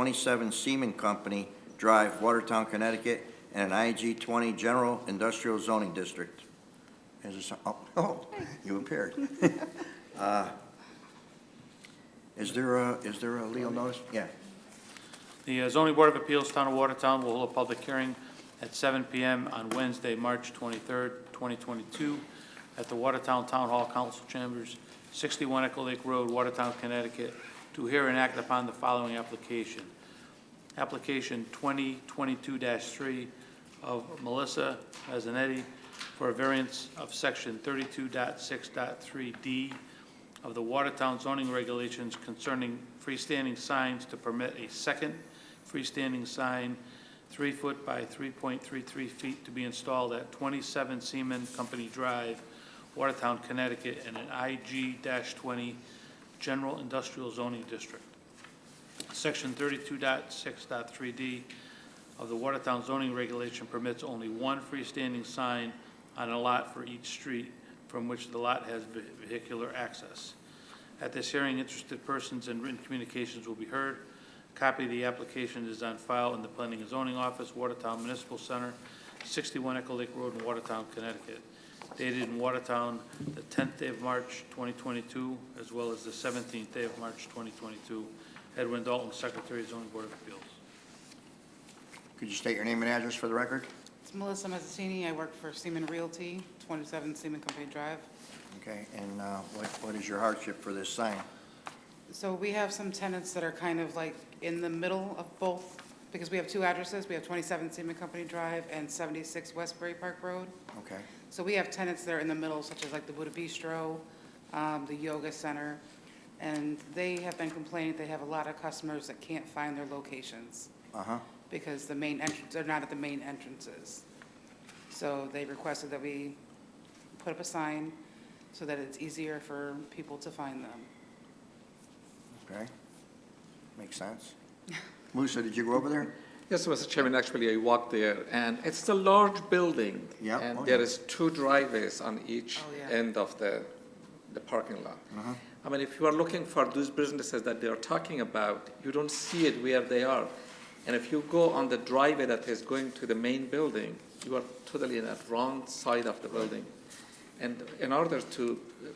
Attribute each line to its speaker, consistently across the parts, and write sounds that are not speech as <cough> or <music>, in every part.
Speaker 1: twenty-seven Seaman Company Drive, Watertown, Connecticut, and an IG twenty General Industrial Zoning District. Is there some, oh, oh, you appeared. Uh, Is there a, is there a legal notice? Yeah.
Speaker 2: The uh, zoning board of appeals, Town of Watertown, will hold a public hearing at 7 PM on Wednesday, March 23rd, 2022, at the Watertown Town Hall Council Chambers, 61 Echo Lake Road, Watertown, Connecticut, to hear and act upon the following application. Application 2022-3 of Melissa Mazzanetti for a variance of Section 32.6.3D of the Watertown zoning regulations concerning freestanding signs to permit a second freestanding sign, three foot by three point three three feet, to be installed at twenty-seven Seaman Company Drive, Watertown, Connecticut, in an IG twenty general industrial zoning district. Section 32.6.3 D of the Watertown zoning regulation permits only one freestanding sign on a lot for each street from which the lot has ve- vehicular access. At this hearing, interested persons and written communications will be heard. Copy of the application is on file in the Planning and Zoning Office, Watertown Municipal Center, 61 Echo Lake Road in Watertown, Connecticut. Dated in Watertown, the 10th day of March 2022, as well as the 17th day of March 2022. Edwin Dalton, Secretary of Zoning Board of Appeals.
Speaker 1: Could you state your name and address for the record?
Speaker 3: It's Melissa Mazzattini. I work for Seaman Realty, 27 Seaman Company Drive.
Speaker 1: Okay, and uh, what, what is your hardship for this sign?
Speaker 3: So we have some tenants that are kind of like in the middle of both, because we have two addresses. We have 27 Seaman Company Drive and 76 Westbury Park Road.
Speaker 1: Okay,
Speaker 3: So we have tenants that are in the middle, such as like the Buddha Bistro, um, the Yoga Center, and they have been complaining they have a lot of customers that can't find their locations.
Speaker 1: uh-huh.
Speaker 3: because the main entrance, they're not at the main entrances. So they requested that we put up a sign so that it's easier for people to find them.
Speaker 1: Okay. Makes sense. Musa, did you go over there?
Speaker 4: Yes, Mr. Chairman, actually, I walked there, and it's a large building.
Speaker 1: Yeah, oh,
Speaker 4: And there
Speaker 1: yeah.
Speaker 4: is two driveways on each
Speaker 3: Oh, yeah.
Speaker 4: end of the, the parking lot.
Speaker 1: Uh-huh.
Speaker 4: I mean, if you are looking for those businesses that they are talking about, you don't see it where they are. And if you go on the driveway that is going to the main building, you are totally in the wrong side of the building. And in order to uh,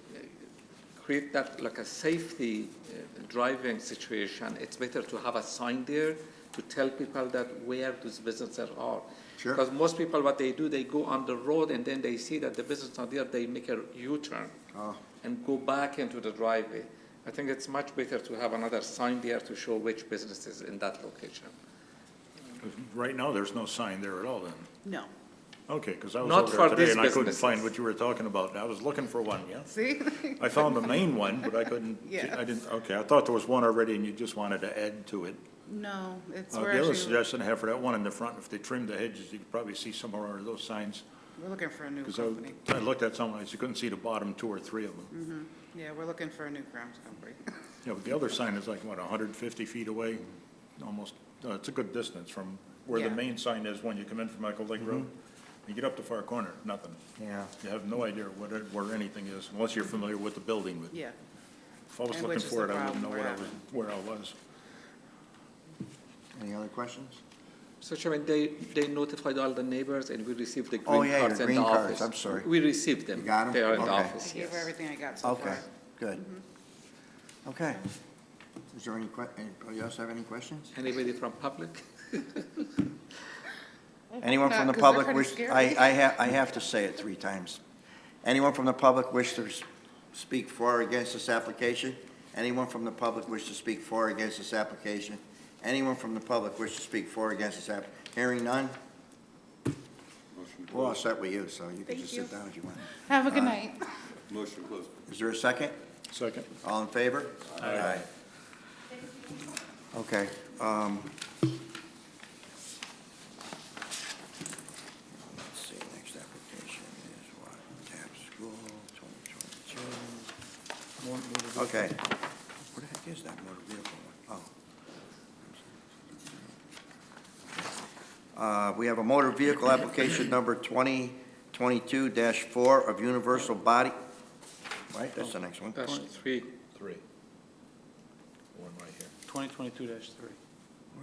Speaker 4: create that, like a safety uh, driving situation, it's better to have a sign there to tell people that where those businesses are.
Speaker 1: Sure.
Speaker 4: Because most people, what they do, they go on the road and then they see that the business are there, they make a U-turn
Speaker 1: Oh,
Speaker 4: and go back into the driveway. I think it's much better to have another sign there to show which business is in that location.
Speaker 5: Right now, there's no sign there at all then?
Speaker 3: No.
Speaker 5: Okay, because I was
Speaker 4: Not
Speaker 5: over there
Speaker 4: for
Speaker 5: today
Speaker 4: these
Speaker 5: and I couldn't
Speaker 4: businesses.
Speaker 5: find what you were talking about. and I was looking for one, yeah.
Speaker 3: See?
Speaker 5: I found the main one, but I couldn't,
Speaker 3: <laughs> Yeah.
Speaker 5: I didn't, okay, I thought there was one already and you just wanted to add to it.
Speaker 3: <laughs> No, it's,
Speaker 5: Uh,
Speaker 3: we're
Speaker 5: The other
Speaker 3: actually,
Speaker 5: suggestion I have for that one in the front, if they trimmed the hedges, you could probably see somewhere under those signs.
Speaker 3: we're looking for a new
Speaker 5: Because
Speaker 3: company.
Speaker 5: I looked at some, I just couldn't see the bottom two or three of them.
Speaker 3: Yeah, we're looking for a new grounds company. <laughs>
Speaker 5: Yeah, but the other sign is like, what, 150 feet away? Almost, uh, it's a good distance from where the
Speaker 3: Yeah.
Speaker 5: main sign is when you come in from Michael Lake Road. You get up to far corner, nothing.
Speaker 1: yeah.
Speaker 5: You have no idea what, it- where anything is, unless you're familiar with the building. But
Speaker 3: Yeah,
Speaker 5: If I
Speaker 3: And
Speaker 5: was looking
Speaker 3: which is
Speaker 5: for it,
Speaker 3: the
Speaker 5: I wouldn't know
Speaker 3: problem
Speaker 5: what I
Speaker 3: we're
Speaker 5: was, where I was.
Speaker 1: Any other questions?
Speaker 4: So Chairman, they, they notified all the neighbors and we received the
Speaker 1: Oh,
Speaker 4: green
Speaker 1: yeah, your
Speaker 4: cards in the office.
Speaker 1: green cards, I'm sorry.
Speaker 4: We received them.
Speaker 1: You got 'em?
Speaker 4: They are in the
Speaker 1: Okay.
Speaker 3: I
Speaker 4: office,
Speaker 3: gave her
Speaker 4: yes.
Speaker 3: everything I got so
Speaker 1: Okay,
Speaker 3: far. Mm-hmm.
Speaker 1: good. Okay. Is there any que, anybody else have any questions?
Speaker 4: Anybody from public?
Speaker 1: Anyone
Speaker 3: not,
Speaker 1: from the
Speaker 3: 'cause they're
Speaker 1: public
Speaker 3: kinda
Speaker 1: wish, I,
Speaker 3: scary.
Speaker 1: I have, I have to say it three times. Anyone from the public wish to s- speak for or against this application? Anyone from the public wish to speak for or against this application? Anyone from the public wish to speak for or against this app? Hearing none? We're all set with you, so you can just sit down if you want.
Speaker 3: Have a good night.
Speaker 6: Motion closed.
Speaker 1: Is there a second?
Speaker 5: Second.
Speaker 1: All in favor? Aye. Okay, um. Let's see, next application is what, Tap School, twenty twenty-two. Okay. What the heck is that motor vehicle one? Oh. Uh, we have a motor vehicle application number twenty twenty-two four of Universal Body, right, that's the next one.
Speaker 4: That's three.
Speaker 5: Three. One right here.
Speaker 2: 2022-3.